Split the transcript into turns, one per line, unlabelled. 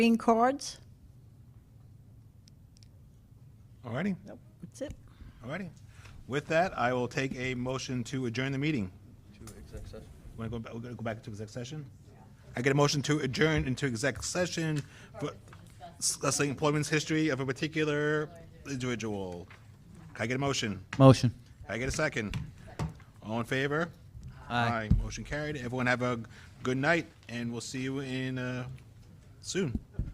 Green cards?
All righty,
Nope. That's it.
all righty. With that, I will take a motion to adjourn the meeting.
to exec session.
Want to go, back? we're going to go back to exec session? I get a motion to adjourn into exec session for discussing employment's history of a particular individual. Can I get a motion?
Motion.
Can I get a second? All in favor? Motion carried. Everyone have a good night, and we'll see you in, uh, soon.